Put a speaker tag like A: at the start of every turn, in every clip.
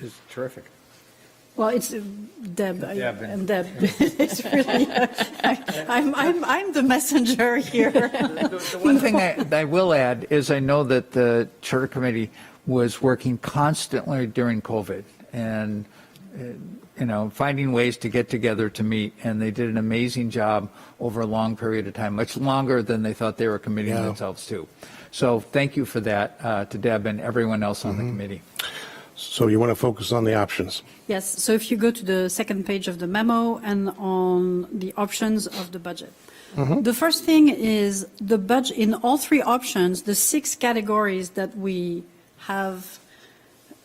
A: is terrific.
B: Well, it's uh, Deb. I-
A: Deb.
B: I'm Deb. It's really, I- I'm, I'm, I'm the messenger here.
A: The one thing I, I will add is I know that the charter committee was working constantly during COVID and, uh, you know, finding ways to get together to meet. And they did an amazing job over a long period of time, much longer than they thought they were committing
C: Yeah.
A: themselves to. So thank you for that uh, to Deb and everyone else on the committee.
C: So you want to focus on the options.
B: Yes, so if you go to the second page of the memo and on the options of the budget. The first thing is the budget, in all three options, the six categories that we have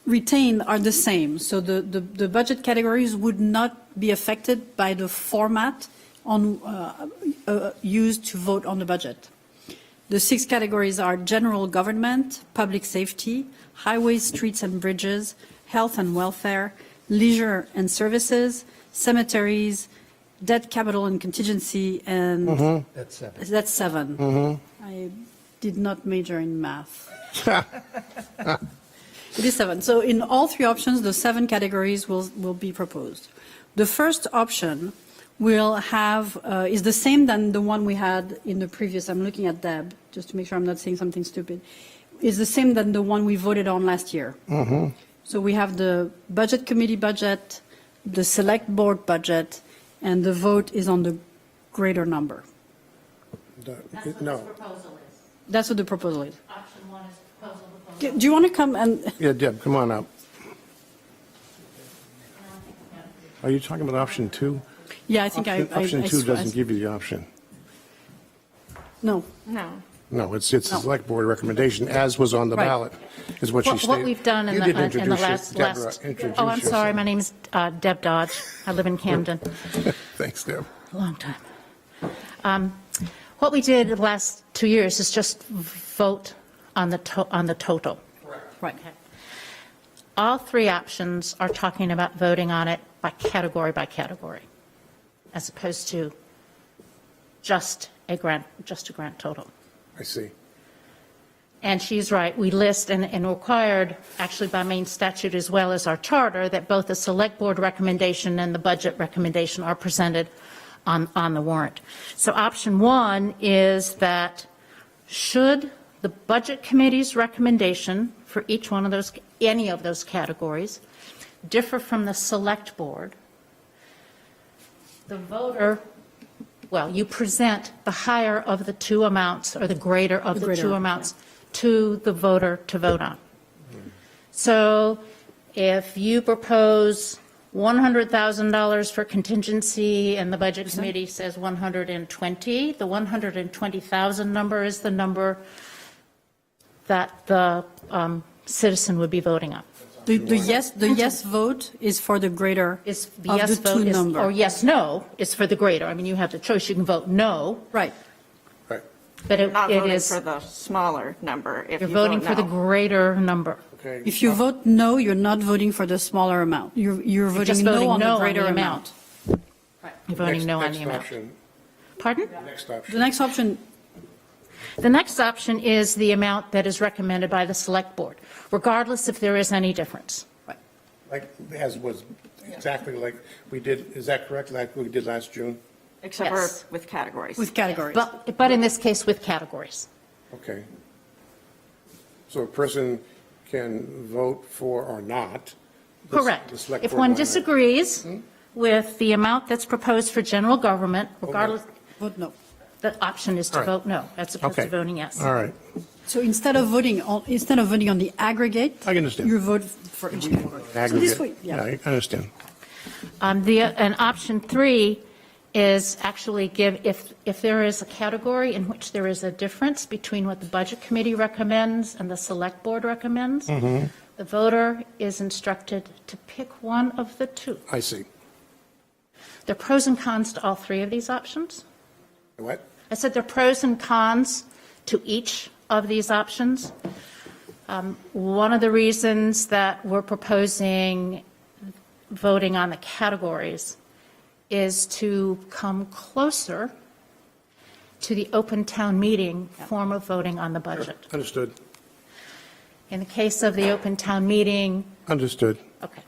B: retained are the same. So the, the, the budget categories would not be affected by the format on, uh, uh, used to vote on the budget. The six categories are general government, public safety, highways, streets and bridges, health and welfare, leisure and services, cemeteries, debt capital and contingency, and
A: That's seven.
B: that's 7 Mm-hmm. I did not major in math. It is seven. So in all three options, the seven categories will, will be proposed. The first option will have, uh, is the same than the one we had in the previous, I'm looking at Deb, just to make sure I'm not saying something stupid, is the same than the one we voted on last year. So we have the budget committee budget, the select board budget, and the vote is on the greater number.
C: No.
D: proposal is.
B: That's what the proposal is.
D: Option one is proposal, proposal.
B: Do do you want to come and,
C: Yeah, Deb, come on up. Are you talking about option two?
B: yeah, I think I. I-
C: Option
B: I
C: two
B: sw- I s-
C: doesn't give you the option.
B: No.
D: No.
C: No, it's, it's the
B: No.
C: select board recommendation, as was on the
B: Right.
C: ballot, is what she
D: What
C: stated.
D: what we've done in
C: You
D: the, uh,
C: didn't
D: in the
C: introduce your-
D: last,
C: Deborah,
D: last.
C: introduce
D: Oh, I'm sorry,
C: yourself.
D: my name's uh, Deb Dodge. I live in Camden.
C: Thanks, Deb.
D: a long time. Um, What we did the last two years is just vote on the, to- on the total.
B: Right.
D: All three options are talking about voting on it by category by category, as opposed to just a grant, just a grant total.
C: I see.
D: And she's right, we list and, and required, actually by main statute as well as our charter, that both the select board recommendation and the budget recommendation are presented on, on the warrant. So option one is that should the budget committee's recommendation for each one of those, any of those categories differ from the select board, the voter, well, you present the higher of the two amounts or the greater of the
B: greater,
D: two amounts to the voter to vote on. So if you propose $100,000 for contingency and the budget committee says 120, the 120,000 number is the number that the um, citizen would be voting on.
B: The, the yes, the yes vote is for the greater
D: Is the
B: of
D: yes
B: the two
D: vote is, oh, or
B: number.
D: yes, no is for the greater. I mean, you have the choice. You can vote no,
B: Right.
C: Right.
D: but it
E: Not
D: it
E: voting
D: is,
E: for the smaller number if you
D: you're
E: vote
D: voting for the
E: no.
D: greater number.
C: Okay.
B: If you vote no, you're not voting for the smaller amount. You're, you're
D: just
B: voting no
D: voting
B: on
D: no
B: the
D: on
B: greater
D: the
B: amount.
D: amount. You're voting
C: Next-
D: no on
C: next
D: the amount.
C: option.
D: Pardon?
C: Next
B: The
C: option.
B: next option,
D: The next option is the amount that is recommended by the select board, regardless if there is any difference.
C: Like, as was exactly like we did, is that correct, like we did last June?
E: Except
D: Yes.
E: for with categories.
B: with categories.
D: But, but in this case with categories.
C: Okay. So a person can vote for or not. the-
D: Correct.
C: the select
D: If
C: board Hmm?
D: one
C: line item.
D: disagrees with the amount that's proposed for general government, regardless,
B: Vote no.
D: the option is
C: All
D: to
C: right.
D: vote no, as opposed
C: Okay.
D: to voting yes.
C: All right.
B: So instead of voting on, instead of voting on the aggregate.
C: I understand.
B: You vote for each category. So this way,
C: Aggregate. Yeah,
B: yeah.
C: I understand.
D: Um, The, and option three is actually give, if, if there is a category in which there is a difference between what the Budget Committee recommends and the Select Board recommends, the voter is instructed to pick one of the two.
C: I see.
D: There are pros and cons to all three of these options.
C: What?
D: I said there are pros and cons to each of these options. Um, One of the reasons that we're proposing voting on the categories is to come closer to the open town meeting form of voting on the budget.
C: Understood.
D: In the case of the open town meeting,
C: Understood.
D: okay,